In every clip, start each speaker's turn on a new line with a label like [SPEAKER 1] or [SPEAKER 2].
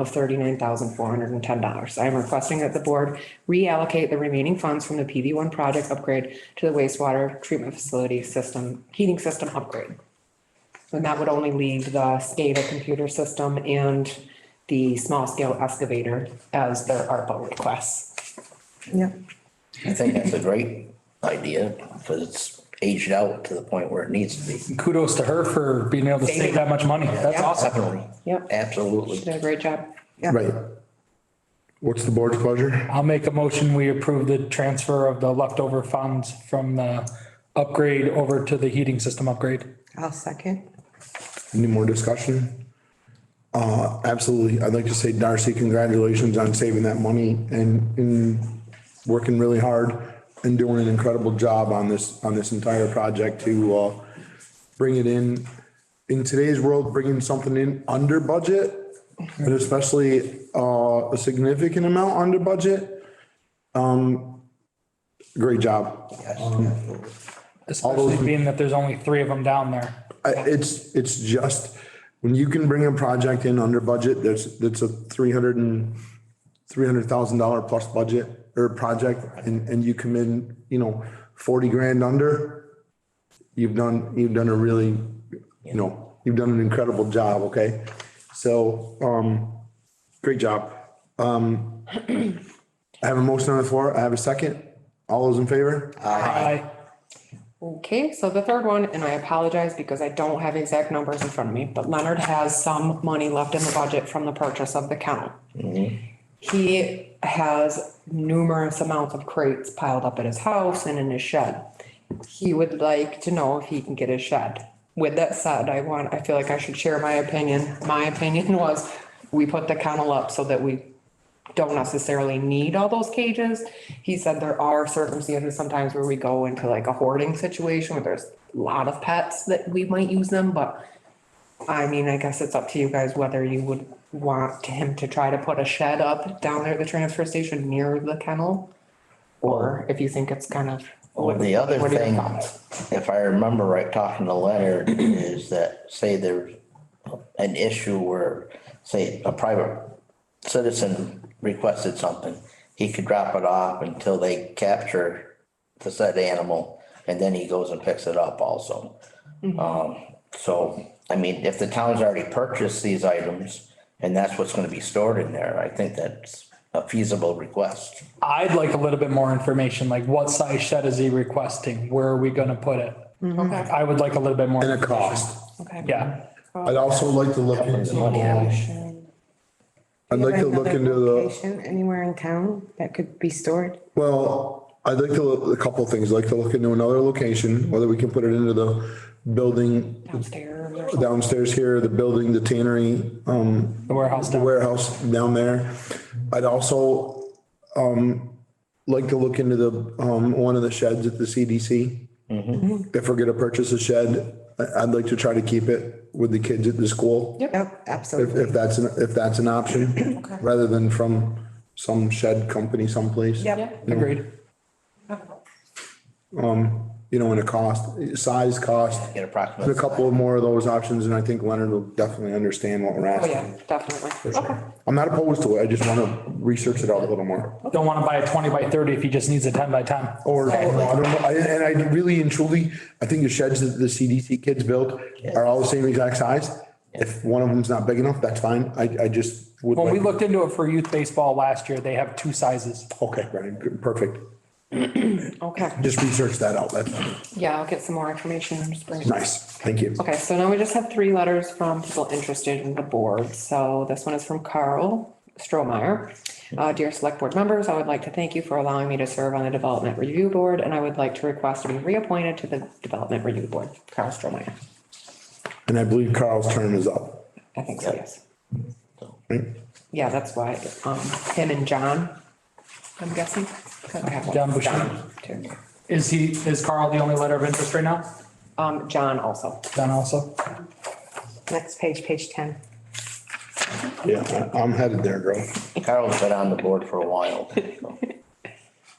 [SPEAKER 1] of thirty-nine thousand four hundred and ten dollars. I am requesting that the board reallocate the remaining funds from the PV one project upgrade to the wastewater treatment facility system, heating system upgrade. And that would only leave the SCADA computer system and the small scale excavator as their ARPA requests.
[SPEAKER 2] Yeah.
[SPEAKER 3] I think that's a great idea because it's aged out to the point where it needs to be.
[SPEAKER 4] Kudos to her for being able to save that much money. That's awesome.
[SPEAKER 3] Definitely.
[SPEAKER 1] Yep, she
[SPEAKER 3] Absolutely.
[SPEAKER 1] did a great job.
[SPEAKER 5] Right. What's the board's pleasure?
[SPEAKER 4] I'll make a motion. We approve the transfer of the leftover funds from the upgrade over to the heating system upgrade.
[SPEAKER 2] I'll second.
[SPEAKER 5] Any more discussion? Uh, absolutely. I'd like to say Darcy, congratulations on saving that money and, and working really hard and doing an incredible job on this, on this entire project to, uh, bring it in. In today's world, bringing something in under budget, but especially, uh, a significant amount under budget. Um, great job.
[SPEAKER 4] Especially being that there's only three of them down there.
[SPEAKER 5] I- It's, it's just, when you can bring a project in under budget, that's, that's a three hundred and, three hundred thousand dollar plus budget or project, and, and you come in, you know, forty grand under, you've done, you've done a really, you know, you've done an incredible job, okay? So, um, great job. Um, I have a motion on the floor, I have a second, all those in favor?
[SPEAKER 4] Aye.
[SPEAKER 1] Okay, so the third one, and I apologize because I don't have exact numbers in front of me, but Leonard has some money left in the budget from the purchase of the kennel. He has numerous amounts of crates piled up at his house and in his shed. He would like to know if he can get his shed. With that said, I want, I feel like I should share my opinion. My opinion was, we put the kennel up so that we don't necessarily need all those cages. He said there are circumstances sometimes where we go into like a hoarding situation where there's a lot of pets that we might use them, but I mean, I guess it's up to you guys whether you would want him to try to put a shed up down there at the transfer station near the kennel. Or if you think it's kind of.
[SPEAKER 3] Well, the other
[SPEAKER 1] What are your
[SPEAKER 3] thing,
[SPEAKER 1] thoughts?
[SPEAKER 3] if I remember right, talking to Leonard, is that say there's an issue where, say, a private citizen requested something, he could drop it off until they capture the said animal, and then he goes and picks it up also.
[SPEAKER 1] Mm-hmm.
[SPEAKER 3] Um, so, I mean, if the town's already purchased these items, and that's what's gonna be stored in there, I think that's a feasible request.
[SPEAKER 4] I'd like a little bit more information, like what size shed is he requesting? Where are we gonna put it?
[SPEAKER 1] Okay,
[SPEAKER 4] I would like a little bit more.
[SPEAKER 5] And a cost.
[SPEAKER 1] okay.
[SPEAKER 4] Yeah,
[SPEAKER 5] I'd also like to look into, I'd like to look
[SPEAKER 2] Another
[SPEAKER 5] into the.
[SPEAKER 2] location Anywhere in town that could be stored?
[SPEAKER 5] Well, I'd like to, look a couple of things, I'd like to look into another location, whether we can put it into the building
[SPEAKER 1] Downstairs or something.
[SPEAKER 5] downstairs here, the building, the tannery, um,
[SPEAKER 4] the warehouse
[SPEAKER 5] the
[SPEAKER 4] down.
[SPEAKER 5] warehouse down there. I'd also, um, like to look into the, um, one of the sheds at the CDC.
[SPEAKER 4] Mm-hmm.
[SPEAKER 5] If we're gonna purchase a shed, I, I'd like to try to keep it with the kids at the school.
[SPEAKER 2] Yep,
[SPEAKER 5] If,
[SPEAKER 2] absolutely.
[SPEAKER 5] if that's, an if that's an option, rather than from some shed company someplace.
[SPEAKER 2] Yep,
[SPEAKER 4] Agreed.
[SPEAKER 5] you know, in a cost, size cost.
[SPEAKER 3] Get
[SPEAKER 5] There's
[SPEAKER 3] approximately.
[SPEAKER 5] a couple more of those options and I think Leonard will definitely understand what we're
[SPEAKER 1] Oh, yeah,
[SPEAKER 5] asking.
[SPEAKER 1] definitely. Okay.
[SPEAKER 5] I'm not opposed to it. I just want to research it out a little more.
[SPEAKER 4] Don't wanna buy a twenty by thirty if he just needs a ten by ten.
[SPEAKER 5] Or, I don't know, I- and I really and truly, I think the sheds that the CDC kids built are all the same exact size. If one of them's not big enough, that's fine. I, I just would.
[SPEAKER 4] When we
[SPEAKER 5] like-
[SPEAKER 4] looked into it for youth baseball last year, they have two sizes.
[SPEAKER 5] Okay, Brian, good, perfect.
[SPEAKER 1] Okay,
[SPEAKER 5] Just research that out. That's
[SPEAKER 1] yeah, I'll get some more information. and just bring it.
[SPEAKER 5] nice. Thank you.
[SPEAKER 1] Okay, so now we just have three letters from people interested in the board. So this one is from Carl Strohmeyer. Uh, dear select board members, I would like to thank you for allowing me to serve on the development review board and I would like to request to be reappointed to the development review board. Carl Strohmeyer.
[SPEAKER 5] And I believe Carl's term is up.
[SPEAKER 1] I think so, yes.
[SPEAKER 5] right?
[SPEAKER 1] Yeah, that's why, um, him and John, I'm guessing. Okay, well,
[SPEAKER 4] John Bushy.
[SPEAKER 1] too.
[SPEAKER 4] Is he, is Carl the only letter of interest right now?
[SPEAKER 1] Um, John also.
[SPEAKER 4] John also?
[SPEAKER 2] next page, page ten.
[SPEAKER 5] Yeah, I- I'm headed there, girl.
[SPEAKER 3] Carl's been on the board for a while. so.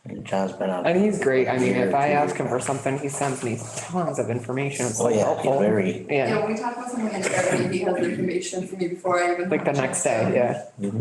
[SPEAKER 3] and John's been on.
[SPEAKER 1] And he's great. I mean, if I
[SPEAKER 3] Year, two
[SPEAKER 1] ask him for something, he sends me tons of information. It's
[SPEAKER 3] Oh,
[SPEAKER 1] so
[SPEAKER 3] yeah, he's
[SPEAKER 1] helpful.
[SPEAKER 3] very.
[SPEAKER 1] Yeah,
[SPEAKER 6] Yeah, when we talk about something in Germany, he has information for me before I even.
[SPEAKER 1] like the next day, yeah.